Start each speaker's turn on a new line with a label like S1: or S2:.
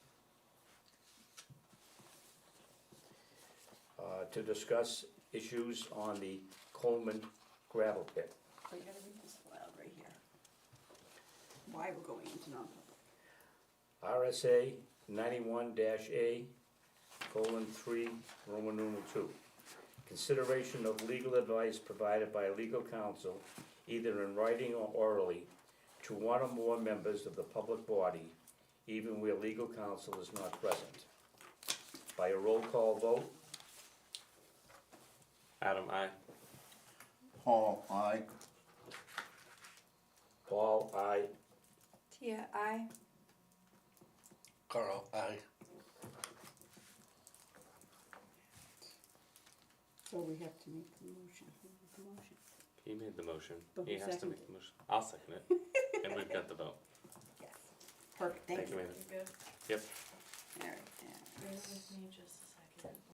S1: uh, to discuss issues on the Coleman gravel pit.
S2: We Oh, gotta read this aloud right here. Why we're going into non-public.
S1: RSA ninety-one A, colon three, Roman numeral two. Consideration of legal advice provided by legal counsel, either in writing or orally, to one or more members of the public body, even where legal counsel is not present. By a roll call vote,
S3: Adam, I.
S4: Paul, I.
S1: Paul, aye.
S5: Tia, I.
S6: Carl, I.
S2: So we have to make the motion, Who made the motion.
S3: He made the motion.
S2: But
S3: He
S2: who
S3: has to
S2: seconded
S3: make the motion. I'll second it. And we've got the vote.
S2: Yes. Perfect, thank
S3: Thank you,
S2: you.
S3: Amanda.
S7: You good?
S3: Yep.
S2: All right,
S7: Bear with me just a second.